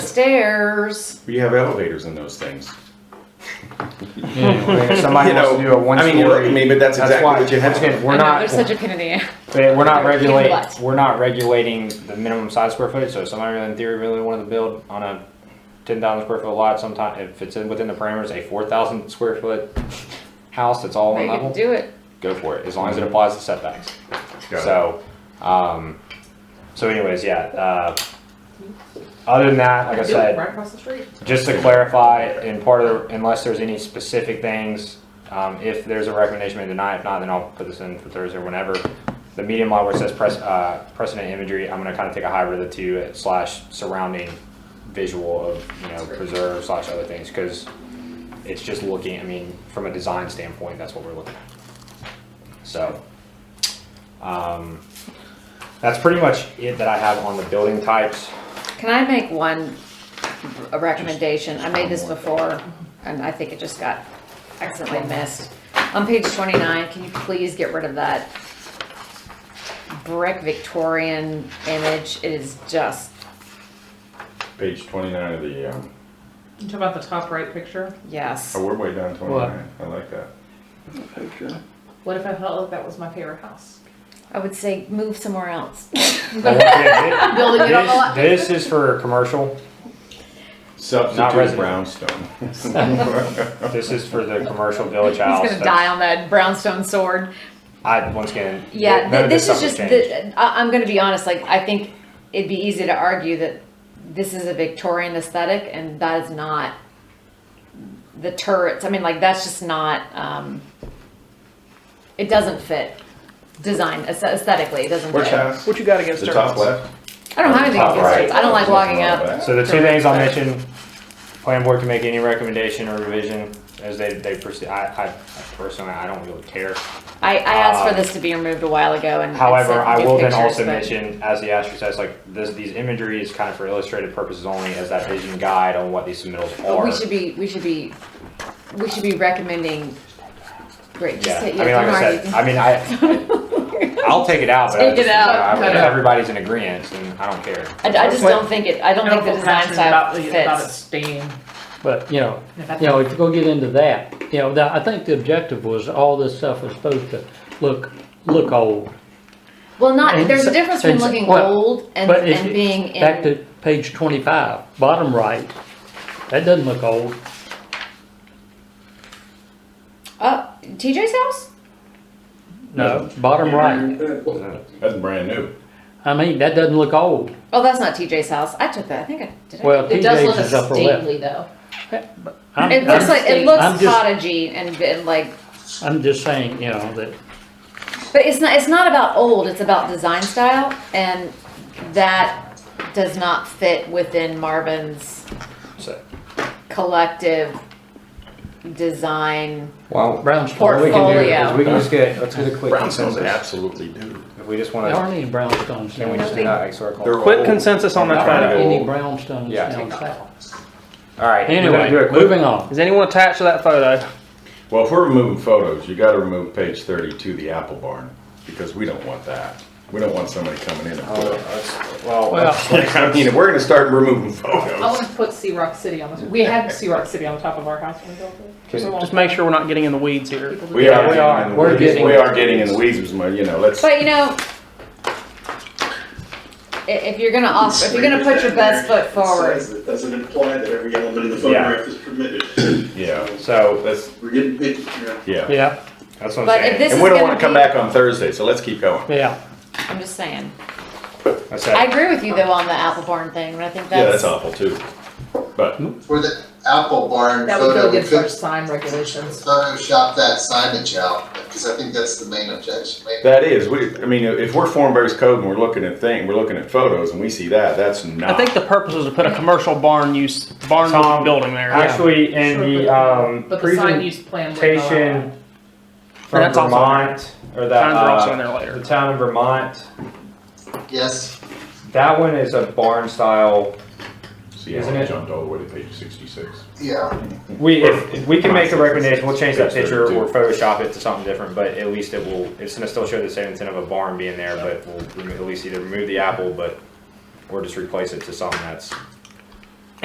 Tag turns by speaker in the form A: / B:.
A: stairs.
B: You have elevators in those things.
C: Anyway, if somebody
B: You
C: wants
B: know,
C: to do a one
B: I mean, you're-
C: story.
B: I mean, but that's exactly
C: why-
B: what you
C: once
B: have.
C: again, We're
A: I know,
C: not,
A: They're such a pain in the ass.
C: but we're not
A: they're kicking
C: regulating,
A: butts.
C: we're not regulating the minimum side square footage, so if somebody really in theory really wanted to build on a ten thousand square foot lot sometime, if it's in, within the parameters, a four thousand square foot house that's all
A: They
C: one
A: can
C: level,
A: do it.
C: go for it, as long as it applies to setbacks.
B: Got it.
C: So, um, so anyways, yeah, uh, other than that, like I
D: Do it
C: said,
D: Right across the street.
C: Just to clarify, in part of, the unless there's any specific things, um, if there's a recommendation made tonight, if not, then I'll put this in for Thursday or whenever. The medium law where it says pres- uh, precedent imagery, I'm gonna kinda take a hybrid of the two uh, slash surrounding visual of, you know, preserve slash other things, cause it's just looking, I mean, from a design standpoint, that's what we're looking at. So, um, that's pretty much it that I have on the building types.
A: Can I make one a recommendation? I made this before, and I think it just got accidentally missed. On page twenty-nine, can you please get rid of that brick Victorian image? It is just,
B: Page twenty-nine of the, um,
D: You talk about the top right picture.
A: yes.
B: oh, we're way down twenty-nine. I like that.
D: What if I felt like that was my favorite house?
A: I would say move somewhere else.
C: But once again, thi-
D: Building it on the lot.
C: This, this is for commercial.
B: Substitute
C: resident.
B: brownstone.
C: This is for the commercial village
A: He's
C: house.
A: gonna die on that brownstone sword.
C: I once again.
A: Yeah,
C: none
A: th-
C: of
A: this is
C: stuff
A: just,
C: would change.
A: the- I, I'm gonna be honest, like, I think it'd be easy to argue that this is a Victorian aesthetic and that is not the turrets, I mean, like, that's just not, um, it doesn't fit design aes- aesthetically, it doesn't
B: Which
A: fit.
B: house?
E: What you got against
B: The top
E: turtles?
B: left?
A: I don't have anything
C: Top
A: against
C: right.
A: turrets, I don't like logging up.
C: So the two things I'll mention, planning board can make any recommendation or revision as they, they proceed. I, I personally, I don't really care.
A: I, I asked for
C: Um,
A: this to be removed a while ago and. it
C: However,
A: said
C: I
A: do
C: will then
A: pictures,
C: also
A: but-
C: mention, as the asterisk says, like this, these imagery is kind of for illustrative purposes only as that vision guide on what these submittals
A: But
C: are.
A: we should be, we should be, we should be recommending, great, just
C: Yeah, I
A: hit
C: mean,
A: yes,
C: like
A: I'm
C: I
A: already.
C: said, I mean, I, I'll take it out, but I
A: Take it
C: just-
A: out,
C: I-
D: cut it out.
C: everybody's in agreement, and I don't care.
A: I, I just don't think it. I don't think the design
D: passionate about
A: style
D: the-
A: fits.
D: About it staying.
F: But, you know,
D: If I
F: you know, if you go get into that, you know, the- I think the objective was all this stuff was supposed to look, look old.
A: Well, not
F: And
A: there's a
F: so-
A: difference between
F: and so-
A: looking
F: well,
A: old and,
F: But if
A: and
F: you-
A: being in.
F: Back to page twenty-five, bottom right, that doesn't look old.
A: uh, TJ's house.
F: No, bottom right.
B: That's brand new.
F: I mean, that doesn't look old.
A: Oh, that's not TJ's house. I took that. I think I did. I-
F: Well,
G: It does
F: TJ's
G: look
F: is upper left.
G: stately though.
F: I'm-
A: it looks
F: I'm-
A: like it
G: I'm
A: looks
F: just-
A: cottagey and, and like,
F: I'm just saying, you know, that,
A: but it's not. It's not about old. It's about design style, and that does not fit within Marvin's
C: So,
A: collective design.
C: well,
F: brownstone,
C: what we can do
A: portfolio.
C: is we can just get let's get a quick
B: Brownstones
C: consensus.
B: absolutely do.
C: If we just
F: there aren't
C: want to,
F: any brownstones
C: then we
F: down
C: just do
F: south.
C: that. Like, sort of
B: They're
C: call-
E: Quick
B: old.
E: consensus on that
C: Not
F: There aren't
E: photo.
F: any
C: old.
F: brownstones
C: Yeah.
F: down south.
C: All right. we're gonna do a
F: Anyway,
C: quick-
F: moving on.
E: Is anyone attached to that photo?
B: Well, if we're removing photos, you gotta remove page thirty-two, the apple barn, because we don't want that. We don't want somebody coming in and
C: Oh,
B: put it.
C: let's- Well,
F: Well,
C: let's-
B: I mean, if we're gonna start removing
D: I
B: photos.
A: Oh,
D: want to put Sea Rock City on the, we had Sea Rock City on the top of our house when we built it.
C: Just-
D: We won't
E: Just make sure we're not getting in the weeds here.
D: people to
B: We
D: do
B: are
D: that.
F: we are.
B: getting in the
F: We're
B: weeds.
F: getting-
B: We are getting in the weeds, with my- you know, let's.
A: But you know, i- if you're gonna off, if you're gonna put your best foot
H: It
A: forward,
H: says it Doesn't imply that every element of the
C: Yeah.
H: photograph is permitted.
B: Yeah.
C: so
B: Let's,
H: We're getting, yeah.
B: yeah.
F: Yeah,
C: that's what I'm
A: But if
C: saying.
A: this-
B: And
A: is
B: we don't
A: gonna
B: wanna come
A: be-
B: back on Thursday, so let's keep going.
F: yeah.
A: I'm just saying.
C: I
A: I
C: said,
A: agree with you though on the apple barn thing, and I think
B: Yeah, that's Hmm?
A: that's,
B: awful too. But
I: For the apple barn
D: That would go
I: photo, we
D: against our
I: could
D: sign regulations.
I: Photoshop that signage out, because I think that's the main objection, maybe.
B: That is, we, I mean, if we're form-based code and we're looking at thing, we're looking at photos and we see that, that's
E: I
B: not.
E: think the purpose was to put a commercial barn use, barn
C: Tom,
E: building there.
C: actually, in the um,
D: But the sign use plan would
A: uh,
D: allow that.
C: presentation from
E: that's also on there.
C: Vermont, or that
E: Signs are also in
C: uh,
E: there later.
C: the town of Vermont,
I: Yes,
C: that one is a barn style.
B: See,
C: Isn't
B: I
C: it?
B: jumped all the way to page sixty-six.
I: yeah,
C: We, if, if we can make a recommendation, we'll change that
B: Page
C: picture or
B: 32.
C: Photoshop it to something different, but at least it will, it's gonna still show the same intent of a barn being there, but we'll remo- at least either remove the apple, but, or just replace it to something that's